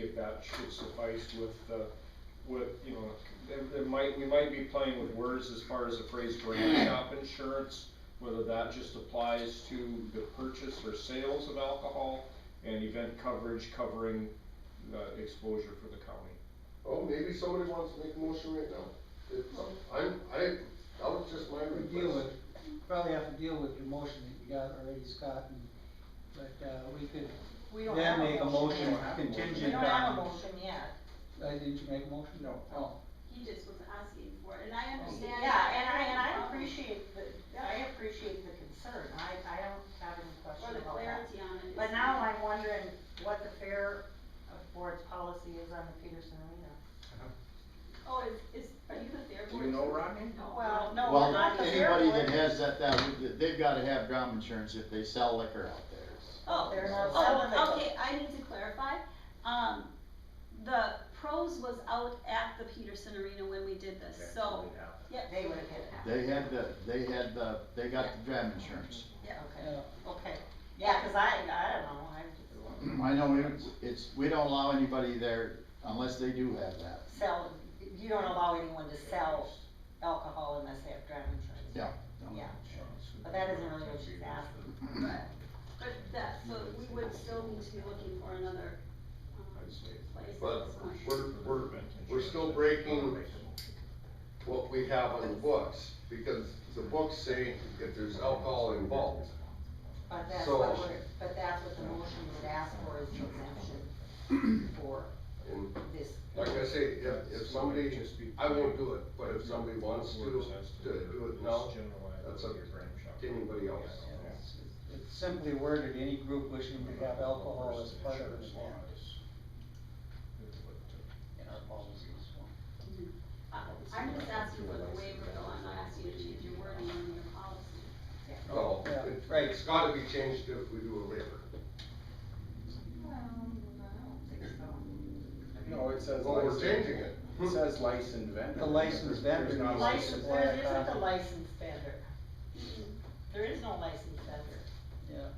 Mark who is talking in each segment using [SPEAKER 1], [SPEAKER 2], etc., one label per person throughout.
[SPEAKER 1] think that should suffice with the, with, you know, there, there might, we might be playing with words as far as the phrase brand shop insurance, whether that just applies to the purchase or sales of alcohol, and event coverage covering the exposure for the county.
[SPEAKER 2] Oh, maybe somebody wants to make a motion right now. It's- I'm, I, that was just my
[SPEAKER 3] We deal
[SPEAKER 2] request.
[SPEAKER 3] with, probably have to deal with your motion that you got already, Scott, and, but, uh, we could,
[SPEAKER 4] We don't
[SPEAKER 3] Then
[SPEAKER 4] have a
[SPEAKER 3] make a motion
[SPEAKER 4] yet.
[SPEAKER 3] contingent
[SPEAKER 4] We don't have a
[SPEAKER 3] on-
[SPEAKER 4] motion yet.
[SPEAKER 3] uh, didn't you make a motion? No. Oh,
[SPEAKER 5] He just was asking for it, and I understand.
[SPEAKER 4] Oh, Yeah, and I, and I
[SPEAKER 5] Um,
[SPEAKER 4] appreciate the, I appreciate the concern, I, I don't have any
[SPEAKER 5] For
[SPEAKER 4] question
[SPEAKER 5] the
[SPEAKER 4] about that.
[SPEAKER 5] clarity on it.
[SPEAKER 4] But now I'm wondering what the fair of board's policy is on the Peterson Arena.
[SPEAKER 5] Oh, is, is, are you the fair
[SPEAKER 6] Do you
[SPEAKER 5] board?
[SPEAKER 6] know, Rodney?
[SPEAKER 5] No.
[SPEAKER 4] Well, no,
[SPEAKER 7] Well,
[SPEAKER 4] not the fair
[SPEAKER 7] anybody that
[SPEAKER 4] board.
[SPEAKER 7] has that, that, they've gotta have drum insurance if they sell liquor out there.
[SPEAKER 5] Oh,
[SPEAKER 4] They're not selling it.
[SPEAKER 5] oh, okay, I need to clarify. Um, the pros was out at the Peterson Arena when we did this, so, yep.
[SPEAKER 4] They would have hit it.
[SPEAKER 7] They had the, they had the, they got the drum insurance.
[SPEAKER 4] Yeah, okay,
[SPEAKER 3] yeah.
[SPEAKER 4] okay. Yeah, 'cause I, I don't know, I just
[SPEAKER 7] I know, it's- it's, we don't allow anybody there unless they do have that.
[SPEAKER 4] sell, you don't allow anyone to sell alcohol unless they have driving insurance.
[SPEAKER 7] Yeah.
[SPEAKER 4] Yeah, but that isn't really what she's asking, but.
[SPEAKER 5] But that, so we would still need to be looking for another, um, place. at
[SPEAKER 2] But
[SPEAKER 5] this point.
[SPEAKER 2] we're, we're, we're still breaking what we have on the books, because the books say if there's alcohol involved.
[SPEAKER 4] But that's
[SPEAKER 2] So-
[SPEAKER 4] what we're, but that's what the motion would ask for is an exemption for
[SPEAKER 2] And
[SPEAKER 4] this.
[SPEAKER 2] like I say, if, if somebody, I won't do it, but if somebody wants to, to do it now, that's up to anybody else.
[SPEAKER 3] It's- It's simply worded, any group wishing to have alcohol as part of an event in our policies.
[SPEAKER 5] Uh, I'm just asking for the waiver, though, I'm not asking you to change your wording in your policy.
[SPEAKER 2] No,
[SPEAKER 3] Yeah,
[SPEAKER 2] it-
[SPEAKER 3] right.
[SPEAKER 2] it's gotta be changed if we do a waiver.
[SPEAKER 5] Um, I don't think so.
[SPEAKER 6] No, it says.
[SPEAKER 2] Well, we're
[SPEAKER 6] license-
[SPEAKER 2] changing it.
[SPEAKER 6] It says licensed vendor.
[SPEAKER 3] The licensed vendor
[SPEAKER 6] There's not a
[SPEAKER 3] needs to
[SPEAKER 6] license.
[SPEAKER 4] License,
[SPEAKER 3] supply
[SPEAKER 4] there
[SPEAKER 3] a
[SPEAKER 4] isn't a
[SPEAKER 3] copy.
[SPEAKER 4] license vendor. There is no license vendor.
[SPEAKER 3] Yeah,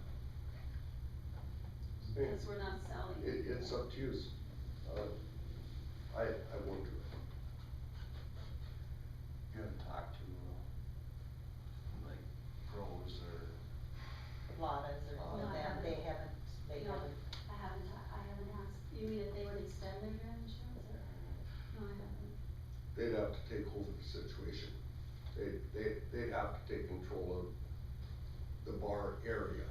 [SPEAKER 2] It,
[SPEAKER 5] Because we're not selling.
[SPEAKER 2] it's up to you. Uh, I, I won't do it.
[SPEAKER 8] You haven't talked to, uh, like, pros or,
[SPEAKER 4] Lottas or
[SPEAKER 5] No, I
[SPEAKER 4] that, they
[SPEAKER 5] haven't.
[SPEAKER 4] haven't, they
[SPEAKER 5] No.
[SPEAKER 4] haven't.
[SPEAKER 5] I haven't, I haven't asked, you mean if they would extend their grant insurance or? No, I haven't.
[SPEAKER 2] They'd have to take hold of the situation. They, they, they'd have to take control of the bar area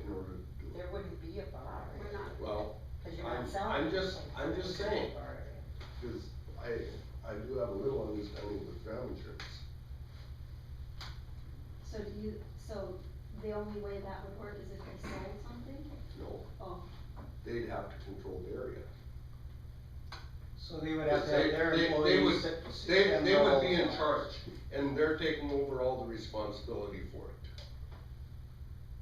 [SPEAKER 2] in order to do it.
[SPEAKER 4] There wouldn't be a bar,
[SPEAKER 5] We're not,
[SPEAKER 2] Well,
[SPEAKER 4] cause you're not
[SPEAKER 2] I'm-
[SPEAKER 4] selling.
[SPEAKER 2] I'm just-
[SPEAKER 4] anything,
[SPEAKER 2] I'm
[SPEAKER 4] so
[SPEAKER 2] just
[SPEAKER 4] there's no
[SPEAKER 2] saying.
[SPEAKER 4] bar area.
[SPEAKER 2] cause I, I do have a little understanding with ground insurance.
[SPEAKER 5] so do you, so the only way that would work is if they sold something?
[SPEAKER 2] No,
[SPEAKER 5] Oh,
[SPEAKER 2] they'd have to control the area.
[SPEAKER 3] so they would have to have
[SPEAKER 2] They-
[SPEAKER 3] their
[SPEAKER 2] they- they
[SPEAKER 3] employees.
[SPEAKER 2] would-
[SPEAKER 3] sit- sit
[SPEAKER 2] They,
[SPEAKER 3] them
[SPEAKER 2] they would
[SPEAKER 3] all
[SPEAKER 2] be in
[SPEAKER 3] out.
[SPEAKER 2] charge, and they're taking over all the responsibility for it.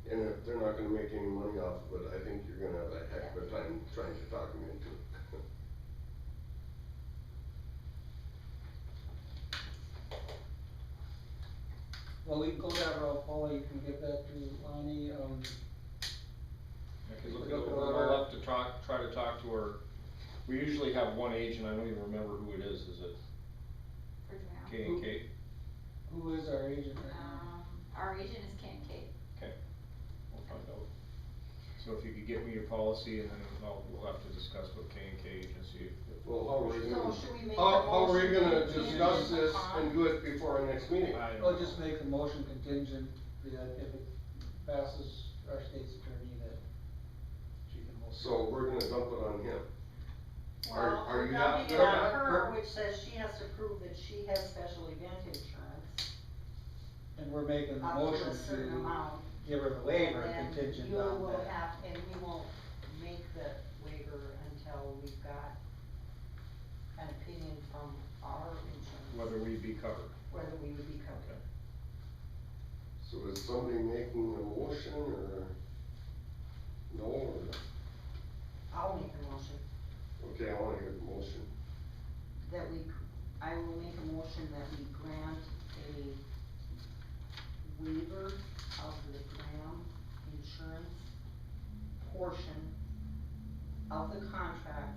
[SPEAKER 2] And if they're not gonna make any money off of it, I think you're gonna have a heck of a time trying to talk them into it.
[SPEAKER 3] Well, we can go that route, Paula, you can get that to Lonnie, um,
[SPEAKER 1] I could look it over, I'll have to talk, try to talk to her. We usually have one agent, I don't even remember who it is, is it
[SPEAKER 9] for drown.
[SPEAKER 1] K and K?
[SPEAKER 3] who is our agent right
[SPEAKER 4] Uh,
[SPEAKER 3] now?
[SPEAKER 9] Um, our region is Kincaid.
[SPEAKER 1] We'll find out. So if you could get me your policy and then I'll, we'll have to discuss with K and K agency.
[SPEAKER 2] Well, how are you
[SPEAKER 4] So
[SPEAKER 2] gonna,
[SPEAKER 4] should we make a
[SPEAKER 2] how, how are
[SPEAKER 4] motion
[SPEAKER 2] you gonna
[SPEAKER 4] contingent
[SPEAKER 2] discuss this
[SPEAKER 4] upon-
[SPEAKER 2] and do it before our next meeting?
[SPEAKER 1] I don't
[SPEAKER 3] Well,
[SPEAKER 1] know.
[SPEAKER 3] just make the motion contingent that if it passes our state's attorney that she can hold.
[SPEAKER 2] So we're gonna dump it on him. Are-
[SPEAKER 4] Well,
[SPEAKER 2] are
[SPEAKER 4] we're
[SPEAKER 2] you
[SPEAKER 4] dumping
[SPEAKER 2] not-
[SPEAKER 4] it
[SPEAKER 2] you're
[SPEAKER 4] on
[SPEAKER 2] not-
[SPEAKER 4] her, which says she has to prove that she has special event insurance
[SPEAKER 3] And we're making the
[SPEAKER 4] up
[SPEAKER 3] motion
[SPEAKER 4] to a certain
[SPEAKER 3] to
[SPEAKER 4] amount.
[SPEAKER 3] give her the waiver
[SPEAKER 4] And then
[SPEAKER 3] contingent
[SPEAKER 4] you
[SPEAKER 3] on
[SPEAKER 4] will
[SPEAKER 3] that.
[SPEAKER 4] have, and we won't make the waiver until we've got an opinion from our insurance,
[SPEAKER 1] Whether we'd be covered.
[SPEAKER 4] whether we would be covered.
[SPEAKER 2] So is somebody making a motion or? No, or,
[SPEAKER 4] I'll make a motion
[SPEAKER 2] okay, I wanna hear the motion.
[SPEAKER 4] that we, I will make a motion that we grant a waiver of the ground insurance portion of the contract